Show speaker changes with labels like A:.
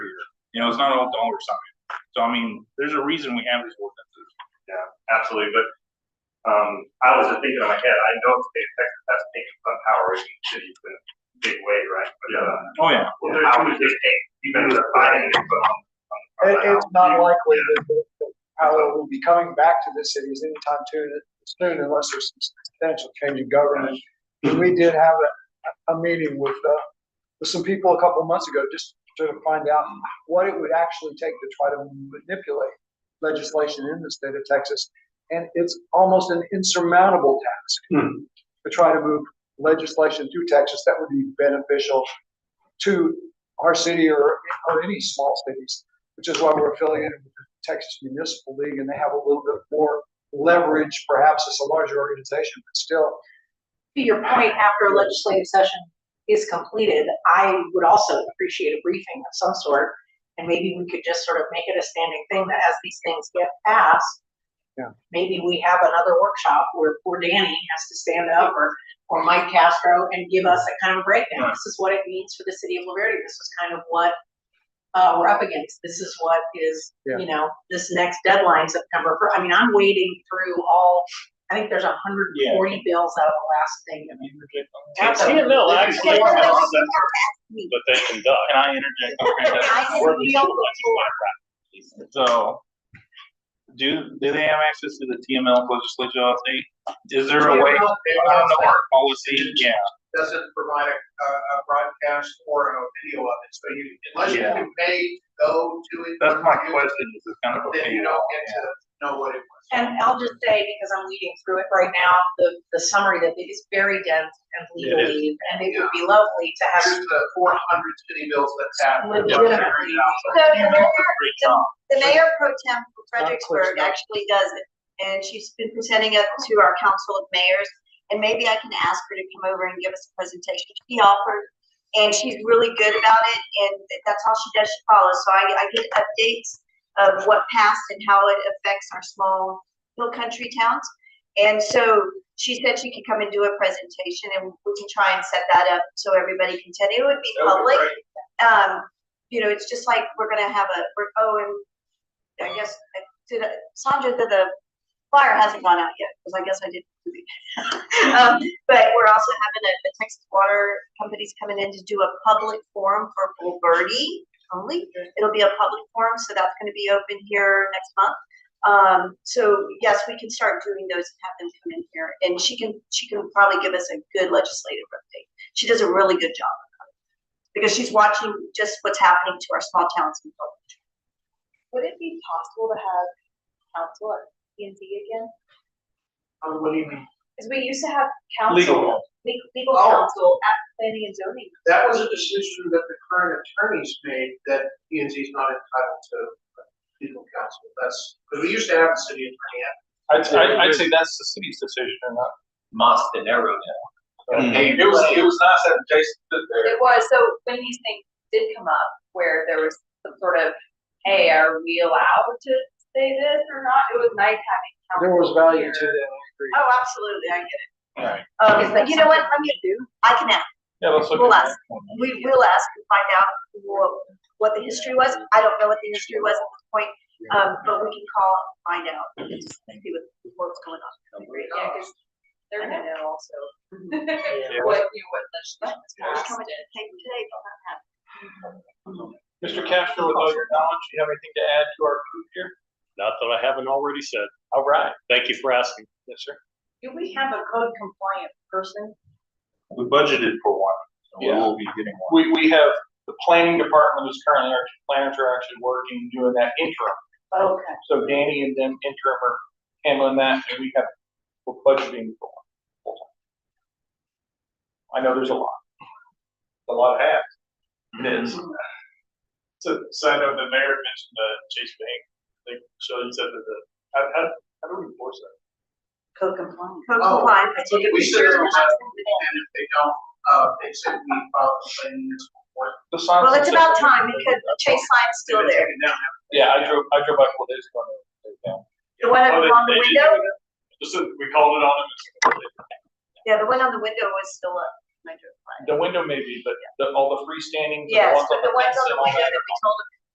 A: You know, it's not all dollar sign. So I mean, there's a reason we have these ordinances.
B: Yeah, absolutely, but, um, I was just thinking in my head, I know it's the effect that that's taken on power in the city, but big way, right? But, uh,
A: Oh, yeah.
B: well, there's how we just take, even the finding, but on. on-
C: It, it's not
B: on-
C: likely that the the power will be coming back to the cities anytime too soon unless there's some substantial change in government. And we did have a, a meeting with, uh, with some people a couple months ago, just to find out what it would actually take to try to manipulate legislation in the state of Texas. And it's almost an insurmountable task
B: Hmm.
C: to try to move legislation through Texas that would be beneficial to our city or, or any small cities, which is why we're affiliated with the Texas Municipal League and they have a little bit more leverage. Perhaps it's a larger organization, but still,
D: To your point, after a legislative session is completed, I would also appreciate a briefing of some sort. And maybe we could just sort of make it a standing thing that as these things get passed.
C: Yeah.
D: Maybe we have another workshop where poor Danny has to stand up or, or Mike Castro and give us a kind of breakdown. This is what it means for the city of Laverde. This is kind of what uh, we're up against. This is what is,
C: Yeah.
D: you know, this next deadline September. fir- I mean, I'm wading through all, I think there's hundred and forty bills out of the last thing.
A: Can I interject on that?
D: Yeah. Absolutely.
E: TML actually
D: Wait, wait,
E: has
D: wait, wait.
E: something that they conduct.
A: Can I interject? Okay, that's-
D: I didn't feel the floor.
A: So, do, do they have access to the TML legislature update? Is there a way, on the work policy, yeah,
F: doesn't provide a, a a broadcast or a video of it, so you, unless
A: Yeah.
F: you pay, go to it.
A: that's my question, is it's kind of a
F: Then you
A: fail.
F: don't get to know what it was.
D: And I'll just say, because I'm reading through it right now, the, the summary that it is very dense and
A: It is.
D: legally, and it would be lovely to have.
F: Here's the four hundred city bills that's happened.
D: Legitimately.
G: So the mayor,
A: Great job.
G: the mayor pro temp for
C: Not clear
G: Fredericksburg
C: enough.
G: actually does it. And she's been presenting it to our council of mayors. And maybe I can ask her to come over and give us a presentation. She offered. And she's really good about it and that's all she does. She follows. So I, I get updates of what passed and how it affects our small hill country towns. And so she said she could come and do a presentation and we can try and set that up so everybody can attend. It would be
F: That would be
G: public.
F: great.
G: Um, you know, it's just like we're gonna have a, we're, oh, and I guess, uh, did, uh, Sandra, the, the flyer hasn't gone out yet, because I guess I did. Um, but we're also having a, the Texas Water Company's coming in to do a public forum for Bull Birdie only. It'll be a public forum, so that's gonna be open here next month. Um, so yes, we can start doing those and have them come in here, and she can, she can probably give us a good legislative update. She does a really good job because she's watching just what's happening to our small towns and folks.
H: Would it be possible to have council at P and Z again?
F: Uh, What do you mean?
H: Because we used to have council.
A: Legal.
H: le- Legal
F: Oh.
H: council at planning and zoning.
F: That was a decision that the current attorneys made that P and Z is not entitled to legal counsel. That's, because we used to have a city attorney.
E: I'd,
A: I'd- I'd
E: say that's the city's decision and not. Must and arrow
A: Mm.
E: Hey, it was, it was nice having Jason sit there.
H: It was, so when these things did come up, where there was some sort of, hey, are we allowed to say this or not? It was nice having council.
C: there was value to
H: here.
C: that, I agree.
G: Oh, absolutely, I get
A: Right.
G: it.
D: Is
G: Um,
D: that
G: but you know what,
D: something
G: I'm gonna do, I can ask,
A: Yeah, let's look
G: We'll
A: at
G: ask.
A: that.
G: we will ask and find out what, what the history was, I don't know what the history was at this point, um, but we can call and find out, and see what, what's going on.
H: Yeah, because they're gonna know also.
D: Mm-hmm.
H: What, you know, what legislation was
G: It's
H: passed
G: coming
H: and-
G: to take today, but not happening.
E: Mr. Castro, with all your knowledge, you have anything to add to our group here? Not that I haven't already said. All right. Thank you for asking. Yes, sir.
D: Do we have a code compliant person?
A: We budgeted for one, so we
E: Yeah.
A: will be getting one.
E: We, we have, the planning department is currently, our planners are actually working, doing that interim.
D: Okay.
E: So Danny and them interim are handling that and we have, we're budgeting for one. full-time. I know there's a lot.
B: A lot of hats.
E: It is.
B: So, so I know the mayor mentioned the Chase Bank, like, so you said that the, how, how, how do we enforce that?
D: Code compliant.
G: Code
F: Oh,
G: compliant, I take it.
F: We said,
G: we're-
F: it's up, and if they don't, uh, they said we file a complaint in this court.
E: The signs
G: Well,
E: that
G: it's
E: say-
G: about time, because the chase line's still there,
E: Yeah, I drove, I drove by four days ago. Oh, and it was
G: the one that was on the window,
B: Just, that we called it on them.
G: yeah, the one on the window was still up, when I drove by.
E: down. The window maybe, but the, all the freestanding.
G: Yes, but the ones on the window that we told them to